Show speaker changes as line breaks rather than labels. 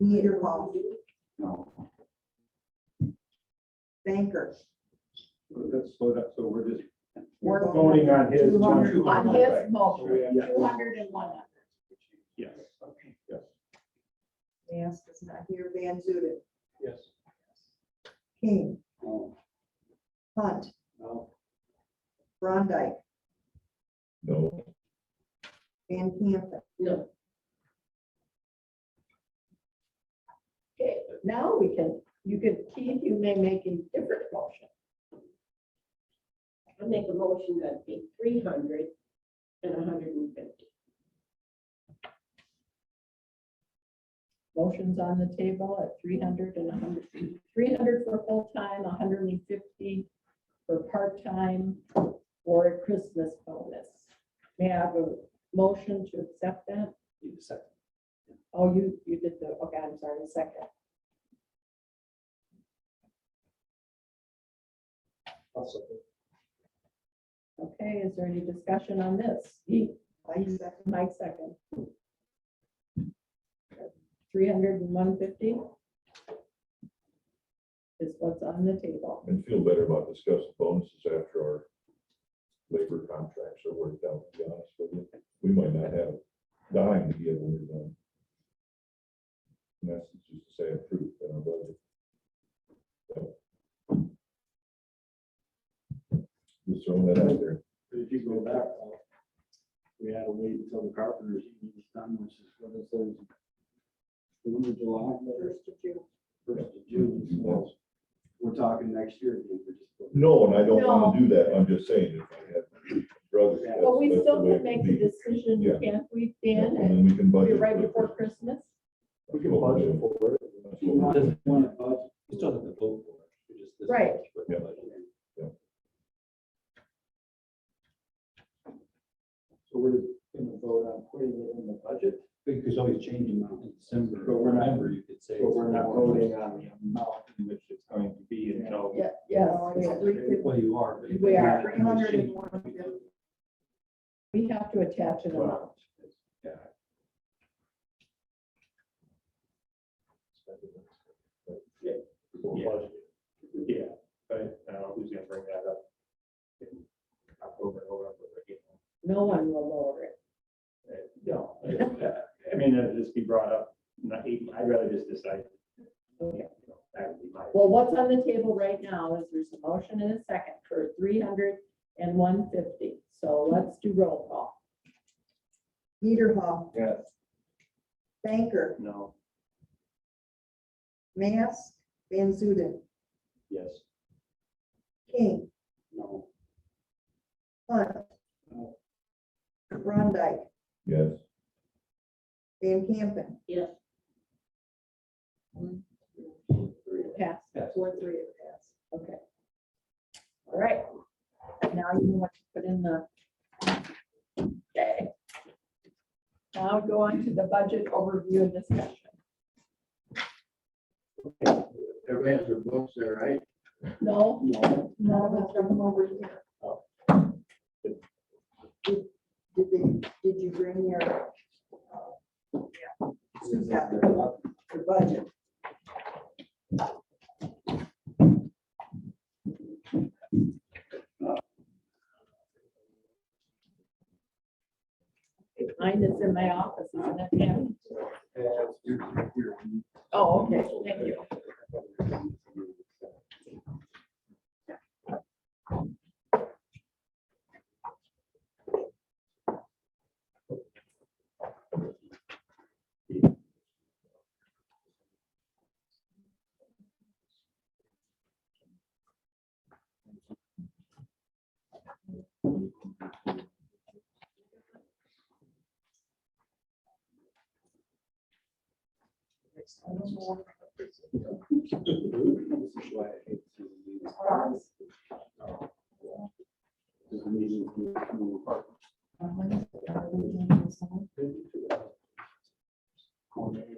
Neither will
No.
Banker.
Let's slow that, so we're just
We're
voting on his.
Two hundred.
two
On
hundred.
his motion,
Yeah.
two hundred and one.
Yes. Yes.
Mask is not here. Van Zuiden.
Yes.
King.
No.
Hunt.
No.
Brondike.
No.
Van Campen.
No. Okay, now we can, you can, Keith, you may make a different motion.
I make a motion that be three hundred and a hundred and fifty.
Motion's on the table at three hundred and a hundred, three hundred for full-time, a hundred and fifty for part-time or a Christmas bonus. May I have a motion to accept that? Oh, you, you did the, okay, I'm sorry, a second. Okay, is there any discussion on this? He,
Mike second.
Mike second. Three hundred and one fifty is what's on the table.
And feel better about discussing bonuses after our labor contracts are worked out, to be honest with you. We might not have a dime to give when we're done. And that's just to say a truth in our budget. So. Just throwing that out there.
If you go back, uh, we had to wait until the carpenter's union was done, which is what it says. The one of July,
First of June.
first of June, so we're talking next year. again, we're just putting-
No, and I don't want to do that. I'm just saying if I had brothers. that's-
But we
that's
still
way it
can make the
would be.
decision,
Yeah.
can't we,
Yeah,
Dan?
And
And
then we can
We're
budget.
right
for it.
before Christmas?
We can budget
for it.
That's
You
what
want
we're-
to want to budget.
You still have to vote for it. You're just this
Right.
much, but-
Yeah.
So we're gonna vote on putting it in the budget,
Because always changing now in December.
But we're not-
November, you could say.
but we're
it's
not
more.
voting on the amount in which it's going to be until.
Oh, Yeah, yes.
No, it's
we-
three fifty.
Well, you are. but-
We are.
Three hundred and one fifty.
We have to attach an amount.
Yeah.
Yeah. Yeah, but I don't know who's gonna bring that up. in October, November, you know.
No one will lower it.
Uh, No, I- I mean, it'll just be brought up, not, even- I'd rather just decide.
Okay.
you know, That would be my.
Well, what's on the table right now is there's a motion and a second for three hundred and one fifty. So let's do roll call.
Niederhoff.
Yes.
Banker.
No,
Mask. Van Zuiden.
yes.
King.
No.
Hunt. Brondike.
Yes.
Van Campen.
Yes.
Pass.
Four, three of pass.
Okay. All right. Now you know what to put in the. Okay. Now go on to the budget overview and discussion.
Everybody has their books there, right?
No,
No.
none of us are over here.
Did they, did you bring your? uh, yeah, Sue's got the the budget.
Mine is in my office, isn't it? Pam? Oh, okay, thank you.
This is why I hate to do this. This meeting is moving apart.
Uh-huh.
Corner